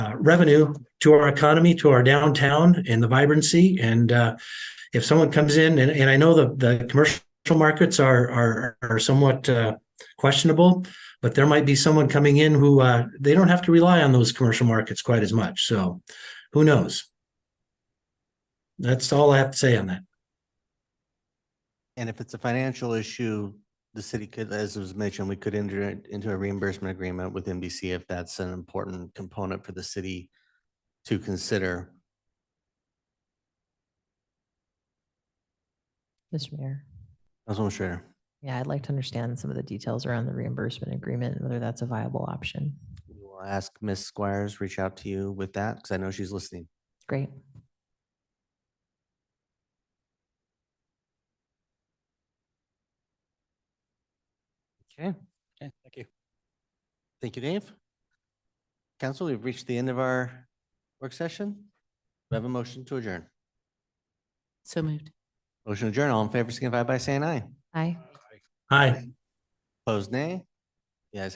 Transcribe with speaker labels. Speaker 1: uh, revenue to our economy, to our downtown and the vibrancy. And uh, if someone comes in, and, and I know the, the commercial markets are, are, are somewhat uh, questionable, but there might be someone coming in who uh, they don't have to rely on those commercial markets quite as much. So who knows? That's all I have to say on that.
Speaker 2: And if it's a financial issue, the city could, as was mentioned, we could enter it into a reimbursement agreement with NBC if that's an important component for the city to consider.
Speaker 3: Mr. Mayor,
Speaker 2: Councilwoman Schrader.
Speaker 3: yeah, I'd like to understand some of the details around the reimbursement agreement, and whether that's a viable option.
Speaker 2: We'll ask Ms. Squires, reach out to you with that, because I know she's listening.
Speaker 3: Great.
Speaker 2: Okay.
Speaker 4: Okay, thank you.
Speaker 2: Thank you, Dave. Council, we've reached the end of our work session. We have a motion to adjourn.
Speaker 5: So moved.
Speaker 2: Motion to adjourn. All in favor, signify by saying aye.
Speaker 3: Aye.
Speaker 1: Hi.
Speaker 2: Opposed, nay.